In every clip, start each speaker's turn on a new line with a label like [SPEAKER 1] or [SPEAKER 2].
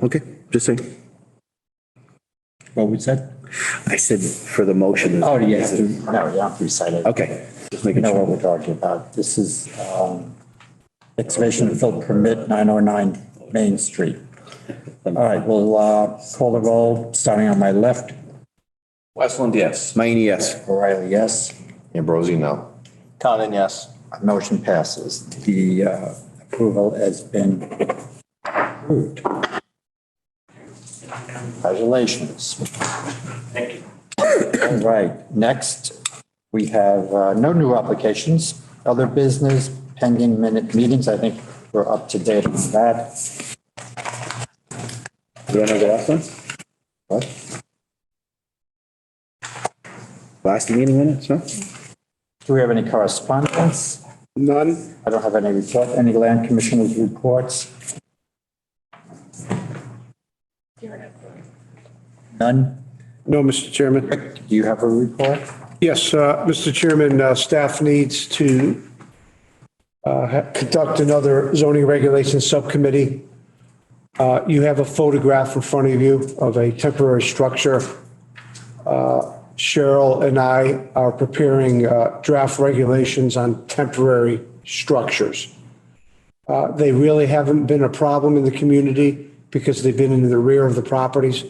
[SPEAKER 1] Okay, just saying.
[SPEAKER 2] What was that?
[SPEAKER 1] I said for the motion.
[SPEAKER 2] Oh, yeah, no, you don't have to recite it.
[SPEAKER 1] Okay, just
[SPEAKER 2] You
[SPEAKER 1] making
[SPEAKER 2] know
[SPEAKER 1] sure.
[SPEAKER 2] what we're talking about. This is um, excavation and fill permit 909 Main Street. All right, we'll uh, call the roll, starting on my left.
[SPEAKER 3] Westland, yes.
[SPEAKER 1] Mayne, yes.
[SPEAKER 2] O'Reilly, yes.
[SPEAKER 3] Ambrosi, no.
[SPEAKER 4] Conan, yes.
[SPEAKER 2] Motion passes. The uh, approval has been approved. Congratulations. Thank you. All right, next, we have uh, no new applications, other business pending minute meetings. I think we're up to date on that.
[SPEAKER 1] You want to go last one?
[SPEAKER 2] What?
[SPEAKER 1] Last meeting minutes, no?
[SPEAKER 2] Do we have any correspondence?
[SPEAKER 1] None.
[SPEAKER 2] I don't have any report, any land commissioners' reports? None?
[SPEAKER 5] No, Mr. Chairman.
[SPEAKER 2] Do you have a report?
[SPEAKER 5] Yes, uh, Mr. Chairman, uh, staff needs to uh, ha- conduct another zoning regulations subcommittee. Uh, You have a photograph in front of you of a temporary structure. Uh, Cheryl and I are preparing uh, draft regulations on temporary structures. Uh, They really haven't been a problem in the community because they've been in the rear of the properties.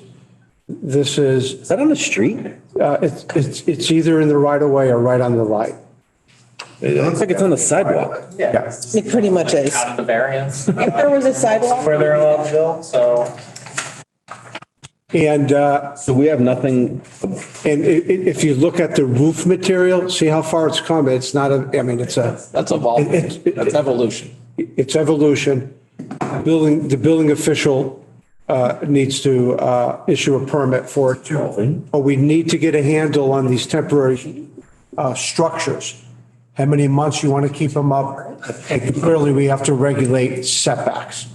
[SPEAKER 5] This is
[SPEAKER 1] Is that on the street?
[SPEAKER 5] uh, It's, it's, it's either in the right of way or right on the light.
[SPEAKER 1] It looks like it's on the sidewalk.
[SPEAKER 5] Yeah.
[SPEAKER 6] It pretty much is.
[SPEAKER 4] Out of the variance,
[SPEAKER 6] If there was a sidewalk,
[SPEAKER 4] further in Loveville, so.
[SPEAKER 5] And, uh,
[SPEAKER 1] So we have nothing,
[SPEAKER 5] and i- i- if you look at the roof material, see how far it's come? It's not a, I mean, it's a,
[SPEAKER 3] That's evolving.
[SPEAKER 5] It- it-
[SPEAKER 3] That's evolution.
[SPEAKER 5] it's evolution. Building, the building official, uh, needs to, uh, issue a permit for it too. But we need to get a handle on these temporary, uh, structures. How many months you want to keep them up? And clearly we have to regulate setbacks.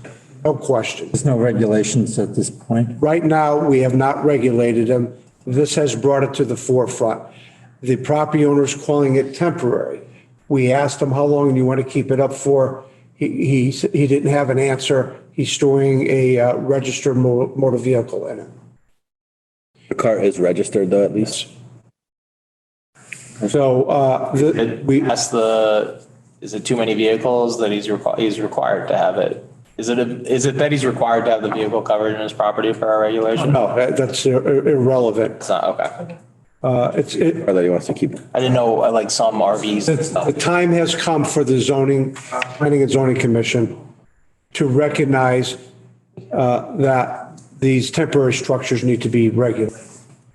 [SPEAKER 5] No question.
[SPEAKER 2] There's no regulations at this point.
[SPEAKER 5] Right now, we have not regulated them. This has brought it to the forefront. The property owner's calling it temporary. We asked him, how long do you want to keep it up for? He, he, s- he didn't have an answer. He's storing a uh, registered mo- motor vehicle in it.
[SPEAKER 1] the car is registered though, at least.
[SPEAKER 5] So, uh, the- we,
[SPEAKER 4] That's the, is it too many vehicles that he's required, he's required to have it? Is it a- is it that he's required to have the vehicle covered in his property for our regulation?
[SPEAKER 5] no, that- oh, that's ir- ir- irrelevant.
[SPEAKER 4] It's not, okay.
[SPEAKER 5] Uh, It's, it,
[SPEAKER 1] Or that he wants to keep.
[SPEAKER 4] I didn't know, uh, like some RVs and stuff.
[SPEAKER 5] the time has come for the zoning, planning and zoning commission to recognize uh, that these temporary structures need to be regulated.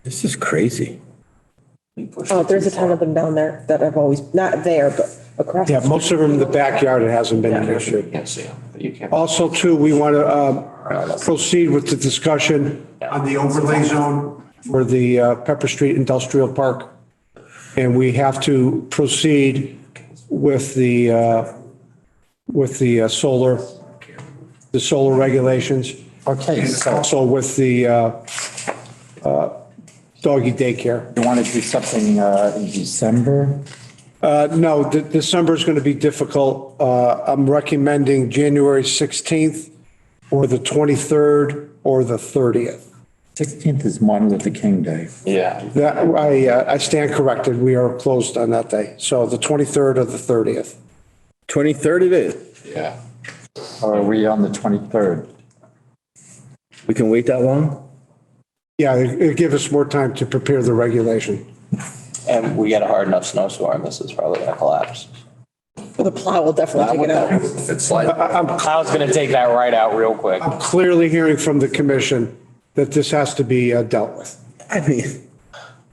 [SPEAKER 1] This is crazy.
[SPEAKER 6] oh, there's a ton of them down there that I've always, not there, but across.
[SPEAKER 5] Yeah, most of them in the backyard, it hasn't been an issue. Also, too, we want to uh, proceed with the discussion on the overlay zone for the uh, Pepper Street Industrial Park. And we have to proceed with the, uh, with the uh, solar, the solar regulations.
[SPEAKER 2] Okay, so
[SPEAKER 5] Also with the uh, uh, doggy daycare.
[SPEAKER 2] you want to do something uh, in December?
[SPEAKER 5] Uh, No, De- December's going to be difficult. Uh, I'm recommending January 16th or the 23rd or the 30th.
[SPEAKER 2] 16th is Martin Luther King Day.
[SPEAKER 4] Yeah.
[SPEAKER 5] That, I, uh, I stand corrected. We are closed on that day. So the 23rd or the 30th.
[SPEAKER 1] 23rd it is.
[SPEAKER 3] Yeah.
[SPEAKER 2] Or are we on the 23rd?
[SPEAKER 1] We can wait that long?
[SPEAKER 5] Yeah, it- it'll give us more time to prepare the regulation.
[SPEAKER 4] And we get a hard enough snowstorm, this is probably gonna collapse.
[SPEAKER 6] The plow will definitely take it out.
[SPEAKER 3] It's like,
[SPEAKER 4] Cloud's gonna take that right out real quick.
[SPEAKER 5] I'm clearly hearing from the commission that this has to be uh, dealt with
[SPEAKER 1] I mean,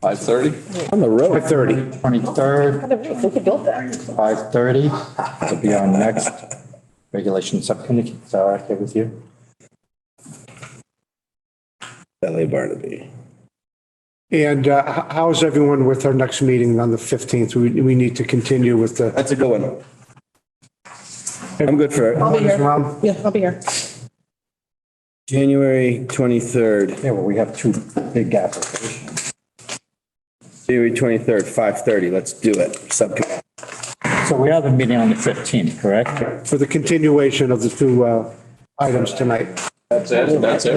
[SPEAKER 3] five thirty?
[SPEAKER 1] on the
[SPEAKER 5] by
[SPEAKER 1] road.
[SPEAKER 5] 30.
[SPEAKER 2] 23rd,
[SPEAKER 6] Look who built that.
[SPEAKER 2] 5:30 to be on next regulation subcommittee. Is that okay with you?
[SPEAKER 1] LA Barnaby.
[SPEAKER 5] And uh, h- how is everyone with our next meeting on the 15th? We, we need to continue with the.
[SPEAKER 1] That's a good one. I'm good for
[SPEAKER 6] I'll be here.
[SPEAKER 5] Round.
[SPEAKER 6] Yeah, I'll be here.
[SPEAKER 1] January 23rd,
[SPEAKER 2] Yeah, well, we have two big applications.
[SPEAKER 1] January 23rd, 5:30. Let's do it. Subcommittee.
[SPEAKER 2] So we have a meeting on the 15th, correct?
[SPEAKER 5] for the continuation of the two uh, items tonight.
[SPEAKER 3] That's it, that's it.